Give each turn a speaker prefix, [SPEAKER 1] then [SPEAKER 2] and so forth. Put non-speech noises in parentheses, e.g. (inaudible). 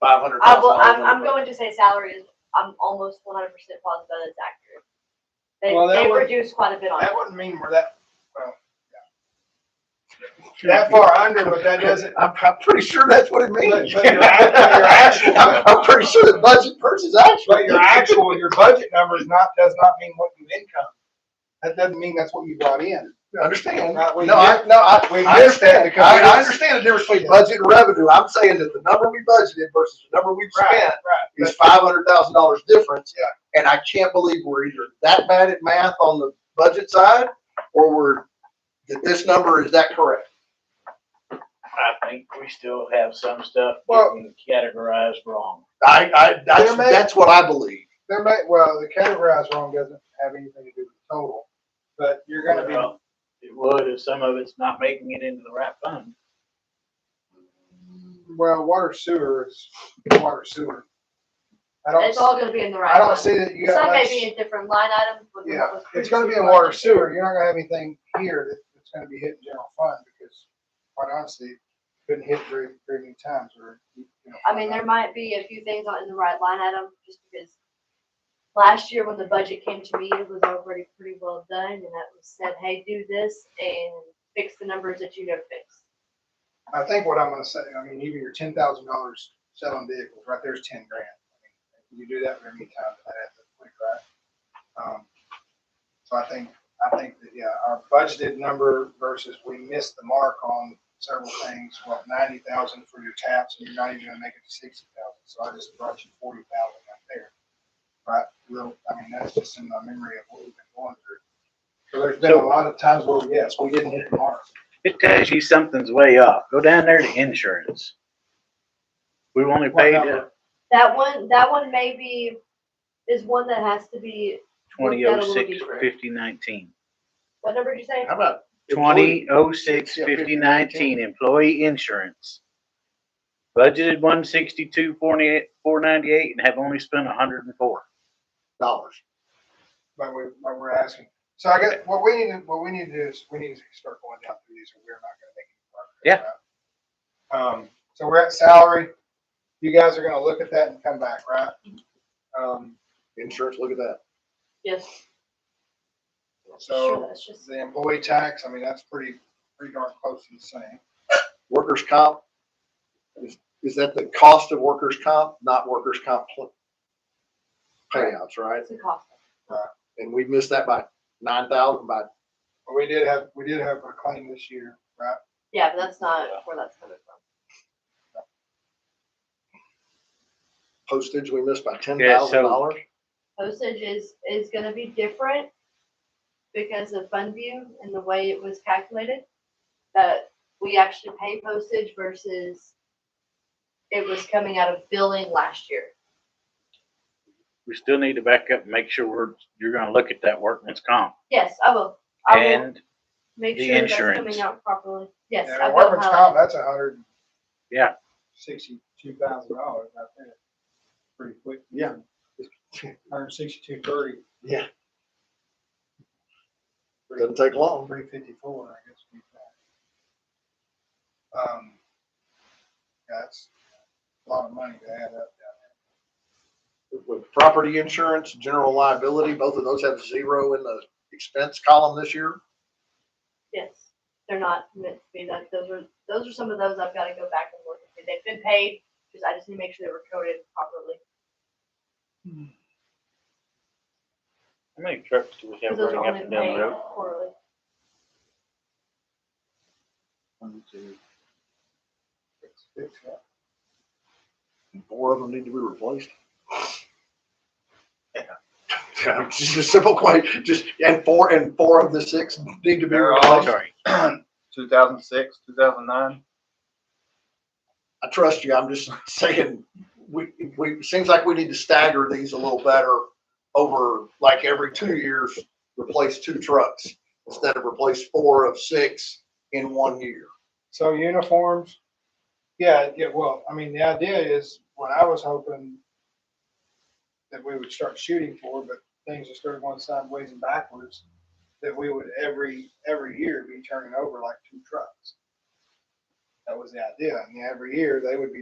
[SPEAKER 1] five hundred
[SPEAKER 2] I
[SPEAKER 1] thousand
[SPEAKER 2] will,
[SPEAKER 1] dollars.
[SPEAKER 2] Uh, I'm, I'm going to say salary is, I'm almost one hundred percent positive that's accurate. They,
[SPEAKER 1] Well, that
[SPEAKER 2] they
[SPEAKER 1] would-
[SPEAKER 2] reduced quite a bit on it.
[SPEAKER 1] That wouldn't mean we're that, well, yeah. That far under, but that doesn't,
[SPEAKER 3] I'm, I'm pretty sure that's what it means.
[SPEAKER 1] But- but your act- your actual-
[SPEAKER 3] I'm, I'm pretty sure the budget versus actual.
[SPEAKER 1] but your actual, your budget number is not, does not mean what you income. That doesn't mean that's what you brought in.
[SPEAKER 3] (laughs) Understand? No,
[SPEAKER 1] Not we
[SPEAKER 3] I,
[SPEAKER 1] get-
[SPEAKER 3] no, I, I
[SPEAKER 1] we get that
[SPEAKER 3] understand.
[SPEAKER 1] because
[SPEAKER 3] I,
[SPEAKER 1] we don't-
[SPEAKER 3] I understand the difference between budget and revenue. I'm saying that the number we budgeted versus the number we've spent
[SPEAKER 1] right.
[SPEAKER 3] is five hundred thousand dollars difference. And I can't believe we're either that bad at math on the budget side, or we're, that this number is that correct?
[SPEAKER 4] I think we still have some stuff
[SPEAKER 1] Well-
[SPEAKER 4] getting categorized wrong.
[SPEAKER 3] I, I, that's,
[SPEAKER 1] There may-
[SPEAKER 3] that's what I believe.
[SPEAKER 1] There may, well, the categorized wrong doesn't have anything to do with total, but you're gonna be,
[SPEAKER 4] Well, It would if some of it's not making it into the right fund.
[SPEAKER 1] well, water sewer is water sewer. I don't,
[SPEAKER 2] It's all
[SPEAKER 1] s-
[SPEAKER 2] gonna be in the
[SPEAKER 1] I
[SPEAKER 2] right
[SPEAKER 1] don't
[SPEAKER 2] line.
[SPEAKER 1] see that you got
[SPEAKER 2] Some may
[SPEAKER 1] much,
[SPEAKER 2] be in different line items, but
[SPEAKER 1] yeah,
[SPEAKER 2] what was.
[SPEAKER 1] it's gonna be in
[SPEAKER 2] previously
[SPEAKER 1] water
[SPEAKER 2] budgeted.
[SPEAKER 1] sewer. You're not gonna have anything here that, that's gonna be hit in general fund because quite honestly, couldn't hit very, very many times or. you know,
[SPEAKER 2] I mean, there might be a few things on in the right line item, just because last year when the budget came to me, it was already pretty well done, and that was said, hey, do this and fix the numbers that you never fixed.
[SPEAKER 1] I think what I'm gonna say, I mean, even your ten thousand dollars selling vehicles, right there's ten grand. I mean, You do that very many times, that adds up quick, right? Um, So I think, I think that, yeah, our budgeted number versus we missed the mark on several things, well, ninety thousand for your taps, and you're not even gonna make it to sixty thousand, so I just brought you forty thousand right there. Right, real, I mean, that's just in my memory of what we've been going through. So there's been a lot of times where, yes, we didn't hit the mark.
[SPEAKER 4] It tells you something's way off. Go down there to insurance. We've only
[SPEAKER 1] What
[SPEAKER 4] paid
[SPEAKER 1] number?
[SPEAKER 4] uh
[SPEAKER 2] That one, that one maybe is one that has to be,
[SPEAKER 4] twenty
[SPEAKER 2] Look that a
[SPEAKER 4] oh
[SPEAKER 2] little
[SPEAKER 4] six
[SPEAKER 2] deeper.
[SPEAKER 4] fifty nineteen.
[SPEAKER 2] what number did you say?
[SPEAKER 3] How about?
[SPEAKER 4] Twenty oh six
[SPEAKER 3] Yeah, 50,
[SPEAKER 4] fifty nineteen, employee insurance. Budgeted one sixty-two, four ninety-eight, four ninety-eight, and have only spent a hundred and four.
[SPEAKER 3] Dollars.
[SPEAKER 1] but we, but we're asking. So I guess what we need to, what we need to do is we need to start going down through these or we're not gonna make it work.
[SPEAKER 4] Yeah.
[SPEAKER 1] Um, so we're at salary. You guys are gonna look at that and come back, right? Um,
[SPEAKER 3] Insurance, look at that.
[SPEAKER 2] Yes, sure,
[SPEAKER 1] so
[SPEAKER 2] that's just,
[SPEAKER 1] the employee tax, I mean, that's pretty, pretty darn close to the same.
[SPEAKER 3] Workers' comp. Is, is that the cost of workers' comp, not workers' comp pl- payouts, right?
[SPEAKER 2] it's a cost.
[SPEAKER 3] And we missed that by nine thousand, by,
[SPEAKER 1] But we did have, we did have a claim this year, right?
[SPEAKER 2] Yeah, but that's not where that's coming from.
[SPEAKER 3] postage, we missed by ten
[SPEAKER 4] Yeah, so-
[SPEAKER 3] thousand dollars.
[SPEAKER 2] Postage is, is gonna be different because of fund view and the way it was calculated. That we actually pay postage versus it was coming out of billing last year.
[SPEAKER 4] We still need to back up and make sure we're, you're gonna look at that workman's comp
[SPEAKER 2] Yes, I will, I will
[SPEAKER 4] and
[SPEAKER 2] make
[SPEAKER 4] the
[SPEAKER 2] sure that's
[SPEAKER 4] insurance.
[SPEAKER 2] coming out properly. Yes,
[SPEAKER 1] And
[SPEAKER 2] I
[SPEAKER 1] a
[SPEAKER 2] will
[SPEAKER 1] workman's comp,
[SPEAKER 2] highlight.
[SPEAKER 1] that's a hundred.
[SPEAKER 4] Yeah.
[SPEAKER 1] Sixty-two thousand dollars, I think. Pretty quick.
[SPEAKER 3] Yeah.
[SPEAKER 1] (laughs) Hundred sixty-two thirty.
[SPEAKER 3] Yeah. Doesn't take long.
[SPEAKER 1] Three fifty-four, I guess. we got. Um, That's a lot of money to add up.
[SPEAKER 3] With property insurance, general liability, both of those have zero in the expense column this year.
[SPEAKER 2] Yes, they're not meant to be that, those are, those are some of those I've gotta go back and look at. They've been paid, because I just need to make sure they were coded properly.
[SPEAKER 4] How many trucks do we have
[SPEAKER 2] 'cause those are only
[SPEAKER 4] running up and down the road?
[SPEAKER 2] paid quarterly.
[SPEAKER 1] It's- it's, uh,
[SPEAKER 3] Four of them need to be replaced. Yeah, (laughs) Just a simple question, just, and four, and four of the six need to be
[SPEAKER 5] They're all-
[SPEAKER 3] replaced.
[SPEAKER 4] Oh, Sorry,
[SPEAKER 5] 2006, 2009.
[SPEAKER 3] I trust you. I'm just (laughs) saying, we, we, it seems like we need to stagger these a little better over, like every two years, replace two trucks instead of replace four of six in one year.
[SPEAKER 1] So uniforms, yeah, yeah, well, I mean, the idea is, what I was hoping that we would start shooting for, but things just started going sideways and backwards, that we would every, every year be turning over like two trucks. That was the idea, and every year they would be